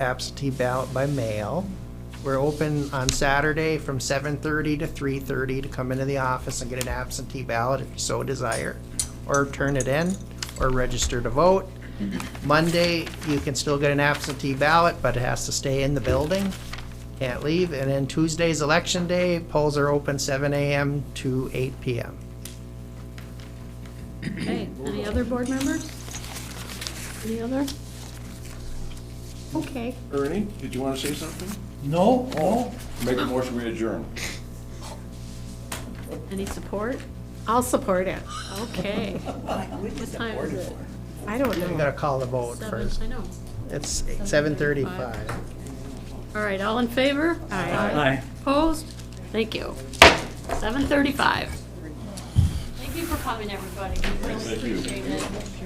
absentee ballot by mail. We're open on Saturday from 7:30 to 3:30 to come into the office and get an absentee ballot if you so desire, or turn it in, or register to vote. Monday, you can still get an absentee ballot, but it has to stay in the building. Can't leave. And then Tuesday's election day, polls are open 7 AM to 8 PM. Okay, any other board members? Any other? Okay. Ernie, did you want to say something? No, no, Make a motion, we adjourn. Any support? I'll support it. Okay. What time is it? I don't We know. gotta call the vote Seven, first. I know. It's 7:35. All right, all in favor? Aye. Opposed? Thank you. Seven thirty-five. Thank you for coming, everybody. We really Thank you. appreciate it.